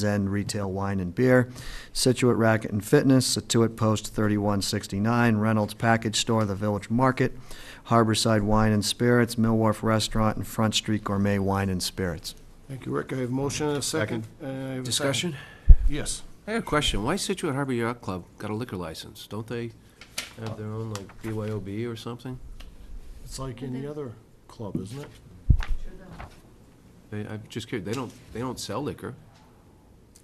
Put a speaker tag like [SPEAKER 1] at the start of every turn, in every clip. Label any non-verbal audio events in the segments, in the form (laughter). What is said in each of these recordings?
[SPEAKER 1] Zen Retail Wine and Beer, Situate Racket and Fitness, Situate Post 3169, Reynolds Package Store, The Village Market, Harborside Wine and Spirits, Mill Wharf Restaurant, and Front Street Gourmet Wine and Spirits.
[SPEAKER 2] Thank you, Rick. I have a motion and a second. Uh, I have a second.
[SPEAKER 3] Discussion?
[SPEAKER 2] Yes.
[SPEAKER 3] I have a question. Why Situate Harbor Yacht Club got a liquor license? Don't they have their own, like, BYOB or something?
[SPEAKER 2] It's like any other club, isn't it?
[SPEAKER 3] They, I'm just curious, they don't, they don't sell liquor.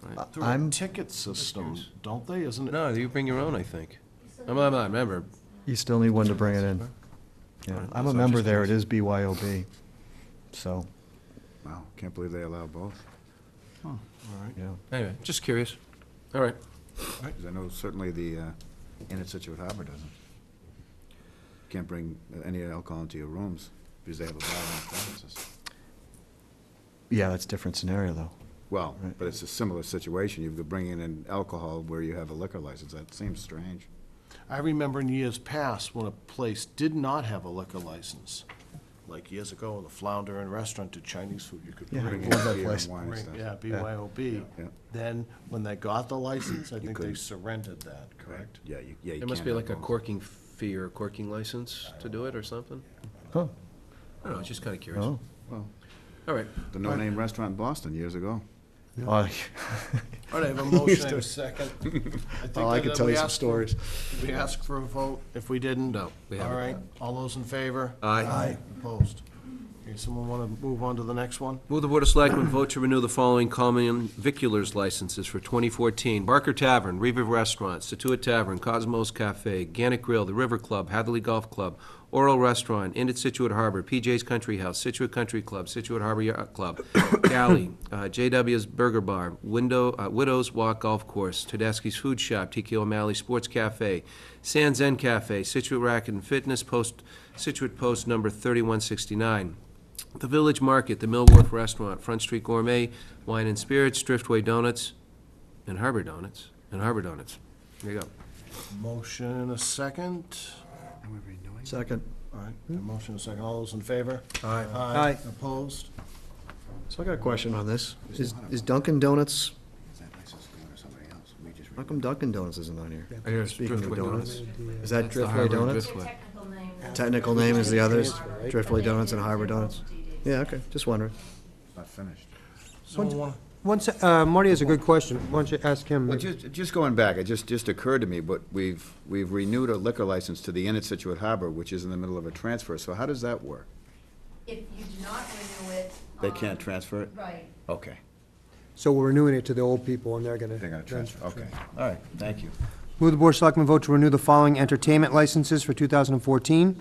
[SPEAKER 4] Uh,
[SPEAKER 3] right?
[SPEAKER 2] Through a
[SPEAKER 1] I'm-
[SPEAKER 2] ticket system,
[SPEAKER 3] Excuse.
[SPEAKER 2] don't they? Isn't it?
[SPEAKER 3] No, you bring your own, I think. I'm, I'm not a member.
[SPEAKER 1] You still need one to bring it in. Yeah, I'm a member there, it is BYOB, so,
[SPEAKER 4] Wow, can't believe they allow both.
[SPEAKER 1] yeah.
[SPEAKER 3] Anyway, just curious. All right.
[SPEAKER 4] 'Cause I know certainly the uh, Inn at Situate Harbor doesn't. Can't bring any alcohol into your rooms because they have a bar on premises.
[SPEAKER 1] Yeah, that's a different scenario, though.
[SPEAKER 4] Well,
[SPEAKER 1] Right.
[SPEAKER 4] but it's a similar situation. You're bringing in alcohol where you have a liquor license. That seems strange.
[SPEAKER 2] I remember in years past when a place did not have a liquor license. Like years ago, the Flounder and Restaurant did Chinese food. You could
[SPEAKER 1] Yeah.
[SPEAKER 2] bring,
[SPEAKER 4] Bring in
[SPEAKER 1] Love that
[SPEAKER 4] beer and
[SPEAKER 1] place.
[SPEAKER 4] wine and
[SPEAKER 2] bring,
[SPEAKER 4] stuff.
[SPEAKER 2] yeah, BYOB.
[SPEAKER 4] Yeah.
[SPEAKER 2] Then, when they got the license, I think they
[SPEAKER 4] couldn't.
[SPEAKER 2] surrendered that, correct?
[SPEAKER 4] Yeah, you, yeah, you
[SPEAKER 3] It must
[SPEAKER 4] can't
[SPEAKER 3] be
[SPEAKER 4] have
[SPEAKER 3] like a
[SPEAKER 4] both.
[SPEAKER 3] corking fee or a corking license to do it or something?
[SPEAKER 1] Huh,
[SPEAKER 3] I don't know, just kinda curious.
[SPEAKER 1] oh,
[SPEAKER 3] All
[SPEAKER 4] Well,
[SPEAKER 3] right.
[SPEAKER 4] The no-name restaurant in Boston years ago.
[SPEAKER 1] Oh,
[SPEAKER 2] All right, I have a motion and a second. think
[SPEAKER 4] Oh, I could
[SPEAKER 2] that
[SPEAKER 4] tell
[SPEAKER 2] we
[SPEAKER 4] you some
[SPEAKER 2] asked for-
[SPEAKER 4] stories.
[SPEAKER 2] Did we ask for a vote? If we didn't?
[SPEAKER 3] No, we
[SPEAKER 2] All
[SPEAKER 3] haven't.
[SPEAKER 2] right, all those in favor?
[SPEAKER 3] Aye.
[SPEAKER 2] Opposed? Okay, someone want to move on to the next one?
[SPEAKER 3] Will the Board of Selectmen vote to renew the following common viculars licenses for 2014? Barker Tavern, Riva Restaurant, Situate Tavern, Cosmos Cafe, Gannett Grill, The River Club, Hadley Golf Club, Oral Restaurant, Inn at Situate Harbor, PJ's Country House, Situate Country Club, Situate Harbor Yacht Club, Galley, uh, JW's Burger Bar, Window, uh, Widow's Walk Golf Course, Tedeschi's Food Shop, TK O'Malley Sports Cafe, San Zen Cafe, Situate Racket and Fitness, Post, Situate Post Number 3169. The Village Market, the Millworth Restaurant, Front Street Gourmet, Wine and Spirits, Driftway Donuts, and Harbor Donuts, and Harbor Donuts. There you go.
[SPEAKER 2] Motion and a second.
[SPEAKER 1] (laughs) second.
[SPEAKER 2] All right, a motion and a second. All those in favor? Aye.
[SPEAKER 1] Aye.
[SPEAKER 2] Opposed?
[SPEAKER 1] Uh, So I got a question on this. Is is Dunkin' Donuts,
[SPEAKER 4] Is that license going to somebody else? We just.
[SPEAKER 1] how come Dunkin' Donuts isn't on here? Speaking of
[SPEAKER 3] Driftway
[SPEAKER 1] donuts, is that
[SPEAKER 3] That's the Harbor
[SPEAKER 1] Driftway Donuts?
[SPEAKER 3] Driftway.
[SPEAKER 5] technical name.
[SPEAKER 1] Technical name is the others,
[SPEAKER 5] Transfer, right?
[SPEAKER 1] Driftway Donuts and Harbor Donuts? Yeah, okay, just wondering.
[SPEAKER 4] It's not finished.
[SPEAKER 2] Someone want,
[SPEAKER 6] Once, uh, Marty has a good question. Why don't you ask him?
[SPEAKER 4] Well, just, just going back, it just, just occurred to me, but we've, we've renewed a liquor license to the Inn at Situate Harbor, which is in the middle of a transfer, so how does that work?
[SPEAKER 5] If you do not renew it.
[SPEAKER 4] They
[SPEAKER 5] um,
[SPEAKER 4] can't transfer it?
[SPEAKER 5] Right.
[SPEAKER 4] Okay.
[SPEAKER 6] So we're renewing it to the old people, and they're gonna.
[SPEAKER 4] They're gonna transfer, okay. All right, thank you.
[SPEAKER 6] Will the Board of Selectmen vote to renew the following entertainment licenses for 2014?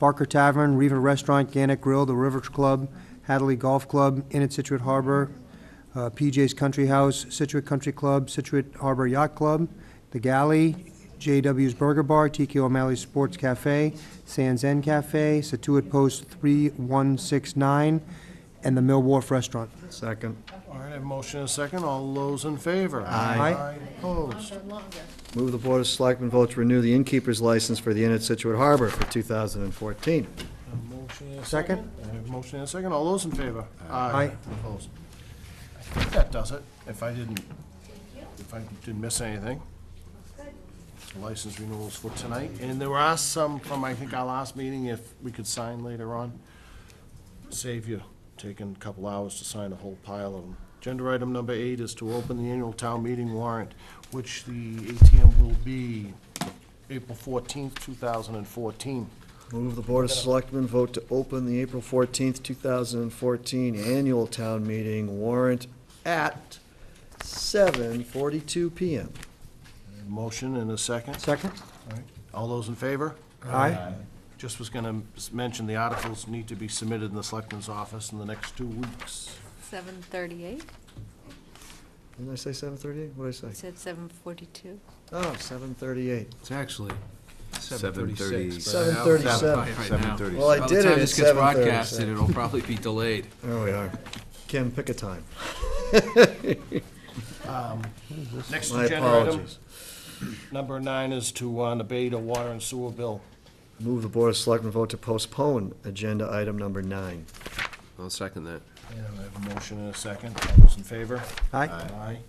[SPEAKER 6] Barker Tavern, Riva Restaurant, Gannett Grill, The River Club, Hadley Golf Club, Inn at Situate Harbor, uh, PJ's Country House, Situate Country Club, Situate Harbor Yacht Club, The Galley, JW's Burger Bar, TK O'Malley's Sports Cafe, San Zen Cafe, Situate Post 3169, and the Mill Wharf Restaurant.
[SPEAKER 1] Second.
[SPEAKER 2] all right, I have a motion and a second. All those in favor?
[SPEAKER 1] Aye.
[SPEAKER 2] Opposed?
[SPEAKER 1] Move the Board of Selectmen vote to renew the innkeeper's license for the Inn at Situate Harbor for 2014.
[SPEAKER 2] A motion and a
[SPEAKER 6] Second.
[SPEAKER 2] I have a motion and a second. All those in favor?
[SPEAKER 6] Aye.
[SPEAKER 2] Opposed? I think that does it, if I didn't, if I didn't miss anything. License renewals for tonight, and there are some from, I think, our last meeting, if we could sign later on. Save you taking a couple hours to sign a whole pile of them. Agenda item number eight is to open the annual town meeting warrant, which the ATM will be April fourteenth, two thousand and fourteen.
[SPEAKER 1] Move the Board of Selectmen vote to open the April 14th, 2014 annual town meeting warrant at 7:42 PM.
[SPEAKER 2] Motion and a second.
[SPEAKER 6] Second?
[SPEAKER 2] All those in favor?
[SPEAKER 6] Aye.
[SPEAKER 2] Just was gonna s- mention, the articles need to be submitted in the selectman's office in the next two weeks.
[SPEAKER 7] Seven thirty-eight,
[SPEAKER 1] Didn't I say 7:38? What did I
[SPEAKER 7] it
[SPEAKER 1] say?
[SPEAKER 7] said seven forty-two.
[SPEAKER 1] Oh, 7:38.
[SPEAKER 3] It's actually
[SPEAKER 4] 7:30.
[SPEAKER 3] 7:36. but I don't have it
[SPEAKER 1] 7:37.
[SPEAKER 3] right now.
[SPEAKER 4] 7:30.
[SPEAKER 1] Well, I
[SPEAKER 3] By the
[SPEAKER 1] did it
[SPEAKER 3] time
[SPEAKER 1] at
[SPEAKER 3] this gets
[SPEAKER 1] 7:37.
[SPEAKER 3] broadcasted, it'll probably be delayed.
[SPEAKER 1] There we are. Kim, pick a time.
[SPEAKER 2] Next
[SPEAKER 1] My
[SPEAKER 2] agenda item,
[SPEAKER 1] apologies.
[SPEAKER 2] Number nine is to uh, debate a water and sewer bill.
[SPEAKER 1] Move the Board of Selectmen vote to postpone agenda item number nine.
[SPEAKER 3] I'll second that.
[SPEAKER 2] And we have a motion and a second. All those in favor?
[SPEAKER 6] Aye.
[SPEAKER 2] Aye.